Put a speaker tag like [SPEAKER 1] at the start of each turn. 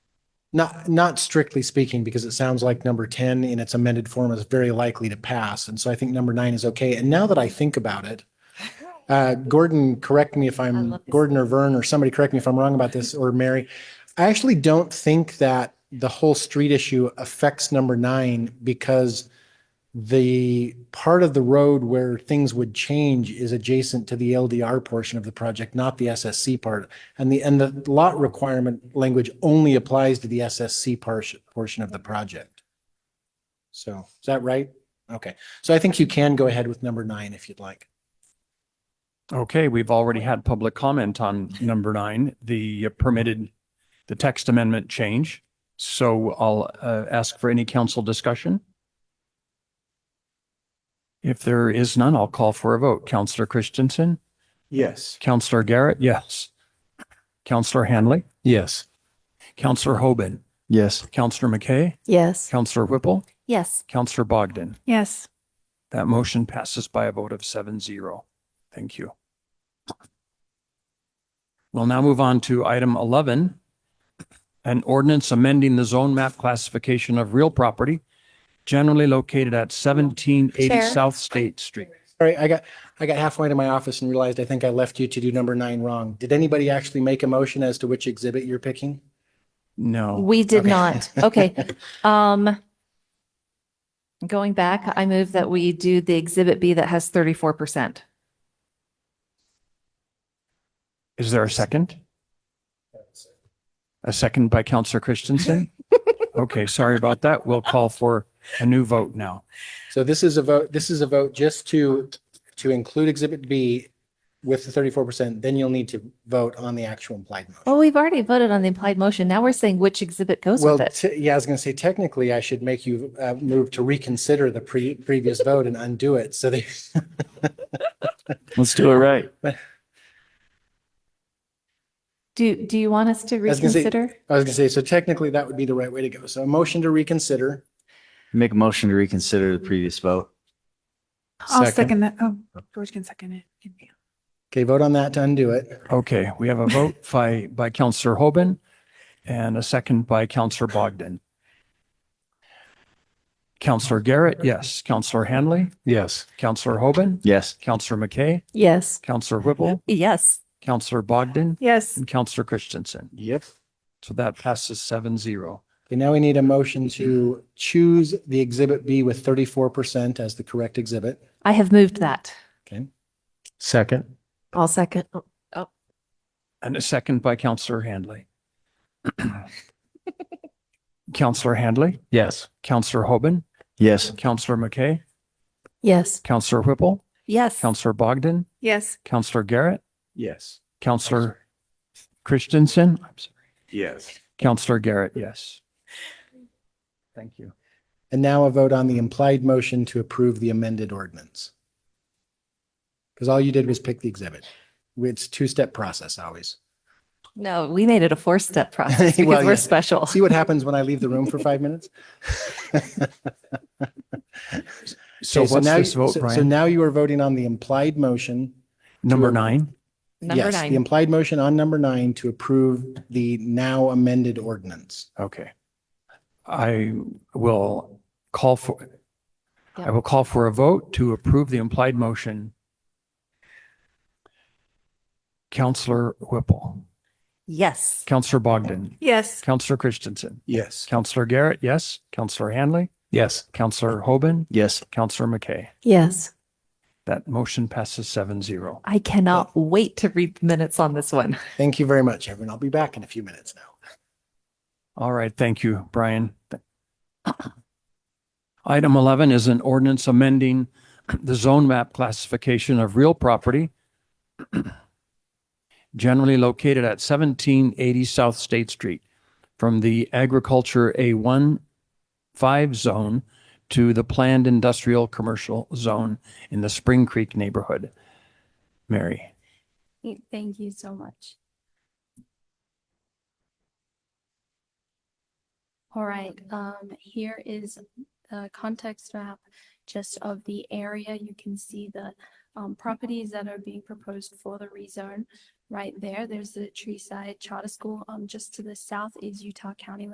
[SPEAKER 1] Not, not strictly speaking, because it sounds like number ten in its amended form is very likely to pass. And so I think number nine is okay. And now that I think about it, uh, Gordon, correct me if I'm,
[SPEAKER 2] love this.
[SPEAKER 1] Gordon or Vern or somebody correct me if I'm wrong about this or Mary. I actually don't think that the whole street issue affects number nine because the part of the road where things would change is adjacent to the LDR portion of the project, not the SSC part. And the, and the lot requirement language only applies to the SSC portion, portion of the project. So is that right? Okay. So I think you can go ahead with number nine if you'd like.
[SPEAKER 3] Okay, we've already had public comment on number nine, the permitted, the text amendment change. So I'll uh, ask for any council discussion. If there is none, I'll call for a vote. Counselor Christensen,
[SPEAKER 4] Yes.
[SPEAKER 3] Counselor Garrett, yes. Counselor Hanley,
[SPEAKER 4] Yes.
[SPEAKER 3] Counselor Hoban,
[SPEAKER 4] Yes.
[SPEAKER 3] Counselor McKay,
[SPEAKER 2] Yes.
[SPEAKER 3] Counselor Whipple,
[SPEAKER 2] Yes.
[SPEAKER 3] Counselor Bogdan.
[SPEAKER 5] Yes.
[SPEAKER 3] That motion passes by a vote of seven zero. Thank you. We'll now move on to item eleven. An ordinance amending the zone map classification of real property generally located at seventeen eighty
[SPEAKER 2] Chair.
[SPEAKER 3] South State Street.
[SPEAKER 1] Sorry, I got, I got halfway to my office and realized I think I left you to do number nine wrong. Did anybody actually make a motion as to which exhibit you're picking?
[SPEAKER 3] No,
[SPEAKER 2] We did
[SPEAKER 1] Okay.
[SPEAKER 2] not. Okay. Um, going back, I move that we do the exhibit B that has thirty-four percent.
[SPEAKER 3] is there a second? A second by Counselor Christensen? Okay, sorry about that. We'll call for a new vote now.
[SPEAKER 1] So this is a vote, this is a vote just to, to include exhibit B with the thirty-four percent, then you'll need to vote on the actual implied motion.
[SPEAKER 2] Well, Oh, we've already voted on the implied motion. Now we're saying which exhibit goes
[SPEAKER 1] Well,
[SPEAKER 2] with it.
[SPEAKER 1] te- yeah, I was going to say technically I should make you uh, move to reconsider the pre, previous vote and undo it. So they,
[SPEAKER 4] Let's do it right.
[SPEAKER 2] Do, do you want us to
[SPEAKER 1] was gonna say-
[SPEAKER 2] reconsider?
[SPEAKER 1] I was going to say, so technically that would be the right way to go. So a motion to reconsider.
[SPEAKER 4] Make a motion to reconsider the previous vote.
[SPEAKER 5] I'll
[SPEAKER 3] Second.
[SPEAKER 5] second that. Oh, George can second it.
[SPEAKER 1] Okay, vote on that to undo it.
[SPEAKER 3] Okay, we have a vote by, by Counselor Hoban and a second by Counselor Bogdan. Counselor Garrett, yes. Counselor Hanley,
[SPEAKER 4] Yes.
[SPEAKER 3] Counselor Hoban,
[SPEAKER 4] Yes.
[SPEAKER 3] Counselor McKay,
[SPEAKER 2] Yes.
[SPEAKER 3] Counselor Whipple,
[SPEAKER 2] Yes.
[SPEAKER 3] Counselor Bogdan,
[SPEAKER 5] Yes.
[SPEAKER 3] and Counselor Christensen.
[SPEAKER 4] Yep.
[SPEAKER 3] So that passes seven zero.
[SPEAKER 1] Okay, now we need a motion to choose the exhibit B with thirty-four percent as the correct exhibit.
[SPEAKER 2] I have moved that.
[SPEAKER 1] Okay.
[SPEAKER 4] Second.
[SPEAKER 2] I'll second.
[SPEAKER 3] And a second by Counselor Handley. Counselor Handley,
[SPEAKER 4] Yes.
[SPEAKER 3] Counselor Hoban,
[SPEAKER 4] Yes.
[SPEAKER 3] Counselor McKay,
[SPEAKER 2] Yes.
[SPEAKER 3] Counselor Whipple,
[SPEAKER 2] Yes.
[SPEAKER 3] Counselor Bogdan,
[SPEAKER 5] Yes.
[SPEAKER 3] Counselor Garrett,
[SPEAKER 4] Yes.
[SPEAKER 3] Counselor Christensen, I'm sorry,
[SPEAKER 4] Yes.
[SPEAKER 3] Counselor Garrett, yes. Thank you.
[SPEAKER 1] And now a vote on the implied motion to approve the amended ordinance. Because all you did was pick the exhibit. It's two-step process always.
[SPEAKER 2] No, we made it a four-step process
[SPEAKER 1] Well,
[SPEAKER 2] because we're
[SPEAKER 1] yeah.
[SPEAKER 2] special.
[SPEAKER 1] See what happens when I leave the room for five minutes?
[SPEAKER 3] So
[SPEAKER 1] Okay,
[SPEAKER 3] what's
[SPEAKER 1] now
[SPEAKER 3] this
[SPEAKER 1] you-
[SPEAKER 3] vote,
[SPEAKER 1] so- So
[SPEAKER 3] Brian?
[SPEAKER 1] now you are voting on the implied motion.
[SPEAKER 3] Number nine?
[SPEAKER 2] Number
[SPEAKER 1] Yes, The
[SPEAKER 2] nine.
[SPEAKER 1] implied motion on number nine to approve the now amended ordinance.
[SPEAKER 3] Okay. I will call for,
[SPEAKER 2] Yeah.
[SPEAKER 3] I will call for a vote to approve the implied motion. Counselor Whipple,
[SPEAKER 2] Yes.
[SPEAKER 3] Counselor Bogdan,
[SPEAKER 5] Yes.
[SPEAKER 3] Counselor Christensen,
[SPEAKER 4] Yes.
[SPEAKER 3] Counselor Garrett, yes, Counselor Hanley,
[SPEAKER 4] Yes.
[SPEAKER 3] Counselor Hoban,
[SPEAKER 4] Yes.
[SPEAKER 3] Counselor McKay.
[SPEAKER 2] Yes.
[SPEAKER 3] That motion passes seven zero.
[SPEAKER 2] I cannot wait to read the minutes on this one.
[SPEAKER 1] Thank you very much, everyone. I'll be back in a few minutes now.
[SPEAKER 3] All right, thank you, Brian. Th- Item 11 is an ordinance amending the zone map classification of real property generally located at 1780 South State Street from the agriculture A1 5 zone to the planned industrial commercial zone in the Spring Creek neighborhood. Mary.
[SPEAKER 6] Thank you so much. All right, um, here is the context map just of the area. You can see the um, properties that are being proposed for the rezone right there. There's the Treeside Charter School. Um, just to the south is Utah County